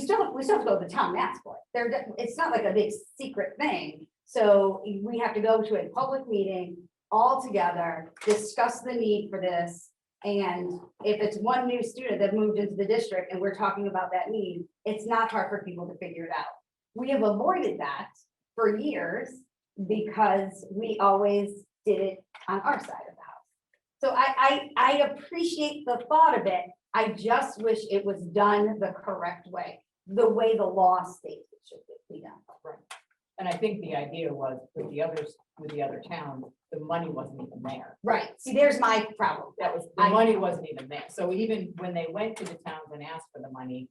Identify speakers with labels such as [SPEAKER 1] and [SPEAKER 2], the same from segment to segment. [SPEAKER 1] we still have to go to the town and ask for it. There, d- it's not like a big secret thing. So we have to go to a public meeting all together, discuss the need for this. And if it's one new student that moved into the district and we're talking about that need, it's not hard for people to figure it out. We have avoided that for years because we always did it on our side of the house. So I, I, I appreciate the thought of it. I just wish it was done the correct way, the way the law states it should be done.
[SPEAKER 2] And I think the idea was with the others, with the other towns, the money wasn't even there.
[SPEAKER 1] Right, see, there's my problem.
[SPEAKER 2] That was, the
[SPEAKER 1] I-
[SPEAKER 2] money wasn't even there. So even when they went to the towns and asked for the money,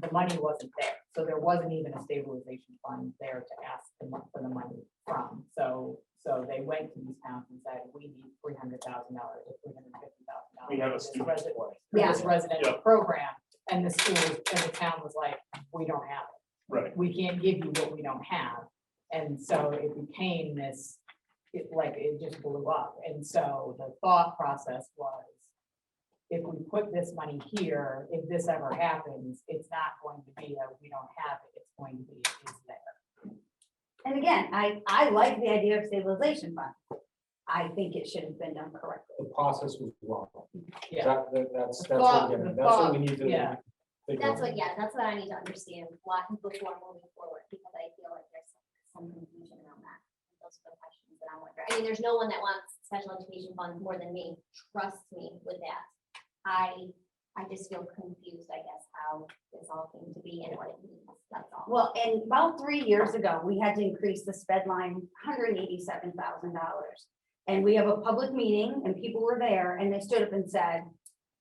[SPEAKER 2] the money wasn't there. So there wasn't even a stabilization fund there to ask the mon- for the money from. So, so they went to these towns and said, we need three hundred thousand dollars or three hundred fifty thousand dollars.
[SPEAKER 3] We have a student
[SPEAKER 2] For
[SPEAKER 3] plan.
[SPEAKER 2] this residential
[SPEAKER 3] Yeah.
[SPEAKER 2] program. And the school, and the town was like, we don't have it
[SPEAKER 3] Right,
[SPEAKER 2] we can't give you what we don't have. And so it became this, it like, it just blew up. And so the thought process was, if we put this money here, if this ever happens, it's not going to be a, we don't have it, it's going to be, it's there.
[SPEAKER 1] And again, I, I like the idea of stabilization fund. I think it should have been done correctly.
[SPEAKER 4] the process was wrong.
[SPEAKER 2] Yeah.
[SPEAKER 4] That, that- that's, that's what,
[SPEAKER 2] thought-
[SPEAKER 4] we're getting-
[SPEAKER 2] the
[SPEAKER 4] that's what we
[SPEAKER 2] thought,
[SPEAKER 4] need to.
[SPEAKER 2] yeah.
[SPEAKER 4] figure
[SPEAKER 5] That's
[SPEAKER 4] out.
[SPEAKER 5] what, yeah, that's what I need to understand, why, before moving forward, because I feel like there's some confusion around that. Those are the questions that I'm wondering. I mean, there's no one that wants special education funds more than me, trust me with that. I, I just feel confused, I guess, how this all came to be and what it means, that's all.
[SPEAKER 1] Well, and about three years ago, we had to increase the sped line hundred and eighty-seven thousand dollars. And we have a public meeting and people were there and they stood up and said,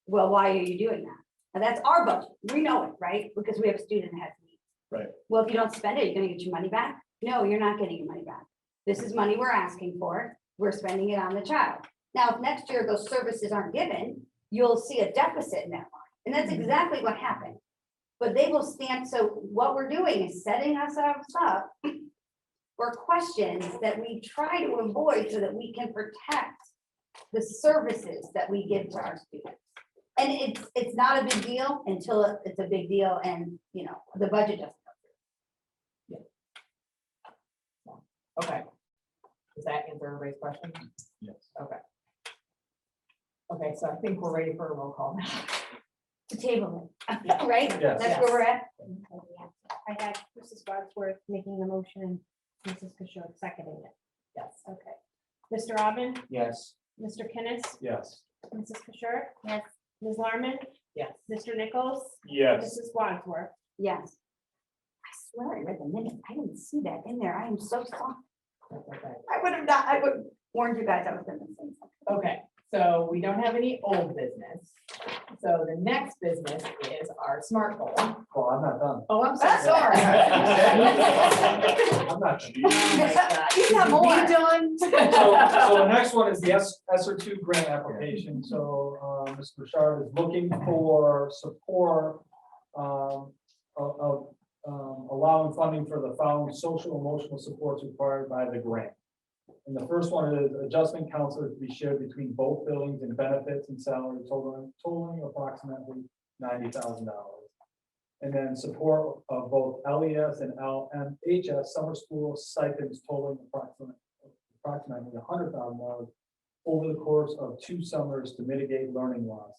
[SPEAKER 1] well, why are you doing that? And that's our budget. We know it, right? Because we have a student that has needs.
[SPEAKER 3] Right.
[SPEAKER 1] Well, if you don't spend it, you're gonna get your money back? No, you're not getting your money back. This is money we're asking for. We're spending it on the child. Now, if next year those services aren't given, you'll see a deficit in that line. And that's exactly what happened. But they will stand, so what we're doing is setting ourselves up for questions that we try to avoid so that we can protect the services that we give to our students. And it's, it's not a big deal until it- it's a big deal and, you know, the budget doesn't.
[SPEAKER 2] Okay. Does that answer everybody's question?
[SPEAKER 3] Yes.
[SPEAKER 2] Okay. Okay, so I think we're ready for a roll call now.
[SPEAKER 1] To table it, right?
[SPEAKER 4] Yes.
[SPEAKER 1] That's where we're at.
[SPEAKER 6] I had Mrs. Wadsworth making the motion, and Mrs. Kishore seconding it.
[SPEAKER 2] Yes.
[SPEAKER 6] Okay. Mr. Robin,
[SPEAKER 4] Yes,
[SPEAKER 6] Mr. Kenneth,
[SPEAKER 4] yes.
[SPEAKER 6] Mrs. Kishore,
[SPEAKER 5] Yes,
[SPEAKER 6] Ms. Larmen,
[SPEAKER 2] Yes.
[SPEAKER 6] Mr. Nichols,
[SPEAKER 3] yes,
[SPEAKER 6] Mrs. Wadsworth.
[SPEAKER 1] Yes. I swear I read the minutes. I didn't see that in there. I am so sorry.
[SPEAKER 2] Okay.
[SPEAKER 1] I would have not, I would warned you guys I was gonna say something.
[SPEAKER 2] Okay, so we don't have any old business. So the next business is our smart goal.
[SPEAKER 4] Well, I'm not done.
[SPEAKER 2] Oh, I'm so
[SPEAKER 3] Sorry.
[SPEAKER 2] sorry.
[SPEAKER 4] I'm not done.
[SPEAKER 1] You have more.
[SPEAKER 7] So, so the next one is the S, SR two grant application, so, uh, Mr. Bouchard is looking for support, um, of, of, um, allowing funding for the following social emotional supports required by the grant. And the first one is adjustment counselors to be shared between both buildings and benefits and salary totaling, totaling approximately ninety thousand dollars. And then support of both LES and LMHS summer school stipends totaling approximately approximately hundred thousand dollars over the course of two summers to mitigate learning loss.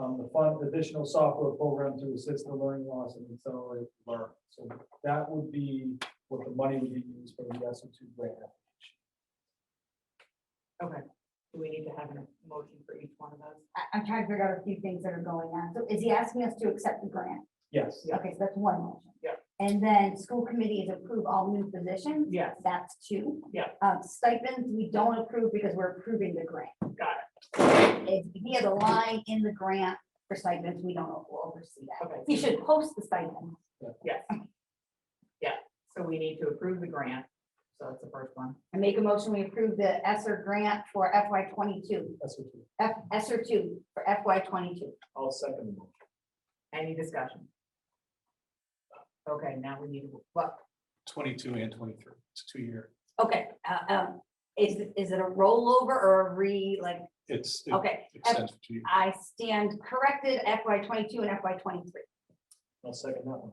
[SPEAKER 7] Um, the fund additional software program to assist the learning loss and accelerate learn. So that would be what the money would be used for the S O two grant.
[SPEAKER 2] Okay, do we need to have a motion for each one of those?
[SPEAKER 1] I- I'm trying to figure out a few things that are going on. So is he asking us to accept the grant?
[SPEAKER 7] Yes,
[SPEAKER 2] Yeah.
[SPEAKER 1] Okay, so that's one motion.
[SPEAKER 2] Yeah.
[SPEAKER 1] And then school committee is approve all new positions.
[SPEAKER 2] Yes,
[SPEAKER 1] That's two.
[SPEAKER 2] Yeah.
[SPEAKER 1] Um, stipends, we don't approve because we're approving the grant.
[SPEAKER 2] Got
[SPEAKER 1] it. If he has a line in the grant for stipends, we don't oversee that.
[SPEAKER 2] Okay.
[SPEAKER 1] He should post the stipend.
[SPEAKER 2] yes. Yeah, so we need to approve the grant, so that's the first one.
[SPEAKER 1] I make a motion, we approve the ESSER grant for FY twenty-two,
[SPEAKER 7] S O two.
[SPEAKER 1] F, ESSER two for FY twenty-two.
[SPEAKER 7] I'll second the motion.
[SPEAKER 2] Any discussion? Okay, now we need, to what,
[SPEAKER 3] twenty-two and twenty-three, it's two-year,
[SPEAKER 1] Okay, uh, um, is, is it a rollover or a re, like,
[SPEAKER 3] it's, it
[SPEAKER 1] okay,
[SPEAKER 3] extends for two years.
[SPEAKER 1] I stand corrected FY twenty-two and FY twenty-three.
[SPEAKER 7] I'll second that one.